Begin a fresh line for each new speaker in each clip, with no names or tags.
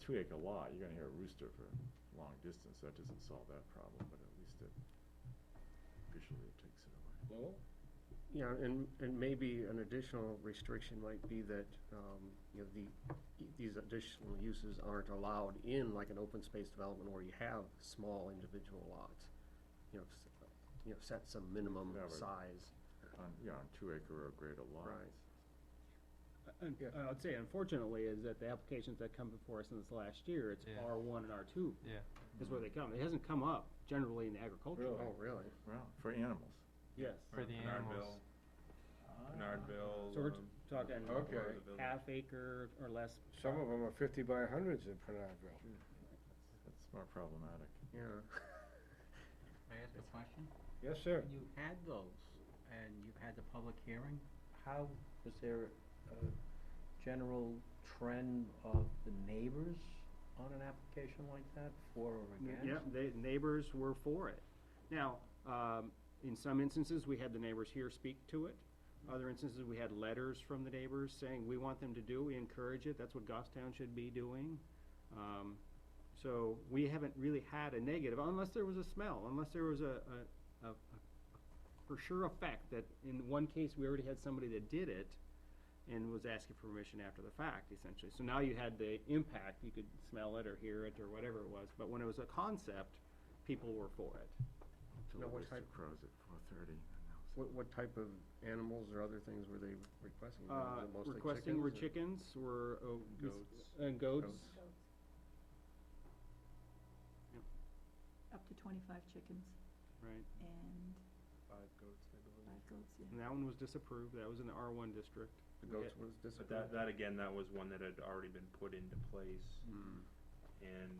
three acre lot, you're gonna hear a rooster for a long distance, that doesn't solve that problem, but at least it visually it takes it away.
Lowell?
Yeah, and, and maybe an additional restriction might be that, um, you know, the, these additional uses aren't allowed in like an open space development where you have small individual lots. You know, s- you know, set some minimum
Yeah, but-
size.
On, yeah, on two acre or greater lots.
And,
Yeah.
uh, I'd say unfortunately is that the applications that come before us in this last year, it's
Yeah.
R one and R two
Yeah.
is where they come. It hasn't come up generally in agriculture.
Really?
Oh, really?
Well, for animals.
Yes.
For the animals.
Uh,
Bernardville.
So we're t-
um,
talking
Okay.
part of the village.
half acre or less.
Some of them are fifty by hundreds in Pernardville.
That's more problematic.
Yeah.
May I ask a question?
Yes, sir.
When you had those, and you had the public hearing, how, was there a general trend of the neighbors on an application like that, for or against?
Yeah, the neighbors were for it. Now, um, in some instances, we had the neighbors here speak to it. Other instances, we had letters from the neighbors saying, we want them to do, we encourage it, that's what Goffstown should be doing. Um, so we haven't really had a negative, unless there was a smell, unless there was a, a, a, a- for sure effect that in one case, we already had somebody that did it and was asking for permission after the fact, essentially. So now you had the impact, you could smell it or hear it or whatever it was, but when it was a concept, people were for it.
Till
Now,
the
what
rooster
type-
crows at four thirty.
What, what type of animals or other things were they requesting? Was
Uh,
it mostly
requesting were
chickens or-
chickens, were, oh, mis-
Goats.
uh, goats.
up to twenty-five chickens
Right,
and
Five goats, I believe.
five goats, yeah.
and that one was disapproved, that was in the R one district.
The goats was
But
disapproved?
that, that again, that was one that had already been put into place
Hmm.
and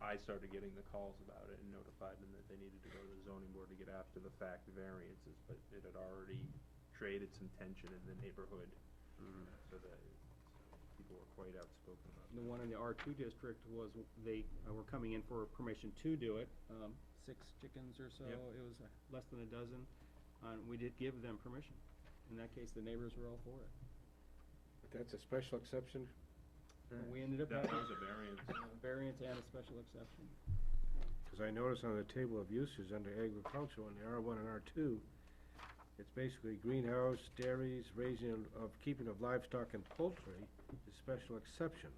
I- I started getting the calls about it and notified them that they needed to go to the zoning board to get after the fact variances, but it had already created some tension in the neighborhood. So that people were quite outspoken about
The one in the R two district was, they uh, were coming in for permission to do it, um, six chickens or so,
Yep.
it was uh, less than a dozen. And we did give them permission. In that case, the neighbors were all for it.
That's a special exception.
And we ended up
it. That
having
was a variance.
a variance and a special exception.
Because I notice on the table of uses under agricultural in the R one and R two, it's basically greenhouse, dairies, raising of- of, keeping of livestock and poultry is special exception.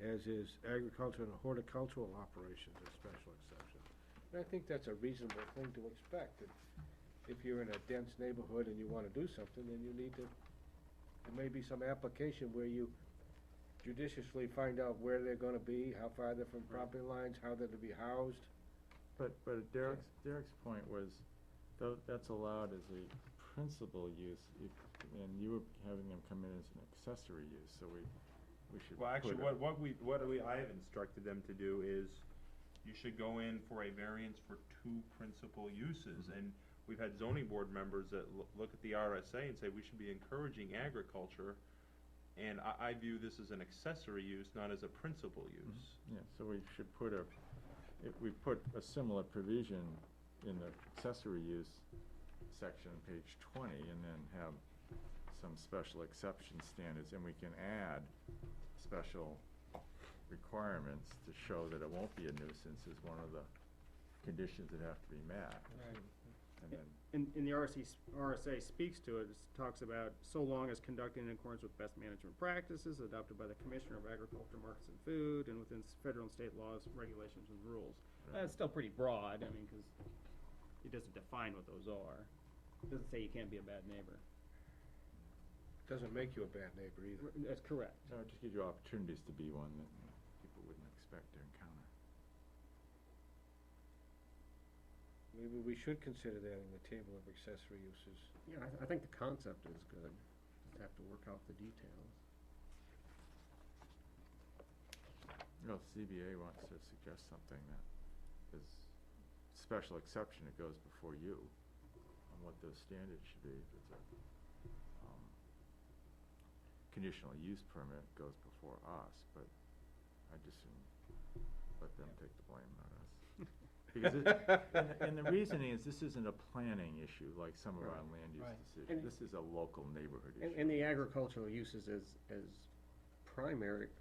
As is agriculture and horticultural operations is special exception. And I think that's a reasonable thing to expect. If- If you're in a dense neighborhood and you want to do something, then you need to, there may be some application where you judiciously find out where they're gonna be, how far they're from property lines, how they're to be housed.
But, but Derek's, Derek's point was, tho- that's allowed as a principal use, if, and you were having them come in as an accessory use, so we, we should.
Well, actually,
put a-
what, what we, what we, I have instructed them to do is, you should go in for a variance for two principal uses,
Mm-hmm.
and we've had zoning board members that loo- look at the RSA and say we should be encouraging agriculture, and I, I view this as an accessory use, not as a principal use.
Yeah, so we should put a, if we put a similar provision in the accessory use section, page twenty, and then have some special exception standards, and we can add special requirements to show that it won't be a nuisance is one of the conditions that have to be met. And then,
And, and the RSC, s- RSA speaks to it, it talks about so long as conducted in accordance with best management practices adopted by the Commissioner of Agriculture, Markets and Food, and within s- federal and state laws, regulations and rules.
Right.
That's still pretty broad, I mean, cause it doesn't define what those are. It Doesn't say you can't be a bad neighbor.
Doesn't make you a bad neighbor either.
That's correct.
so it just gives you opportunities to be one that people wouldn't expect to encounter.
Maybe we should consider that in the table of accessory uses.
Yeah, I, th- I think the concept is good, just have to work out the details.
Well, if CBA wants to suggest something that is special exception, it goes before you on what those standards should be. If it's a, um, conditional use permit, it goes before us, but I just soon let them take the blame, not us. Because it, and, and the reasoning is this isn't a planning issue like some of our land use
Right.
decisions. This is a local neighborhood issue.
And, and the agricultural uses as, as primary,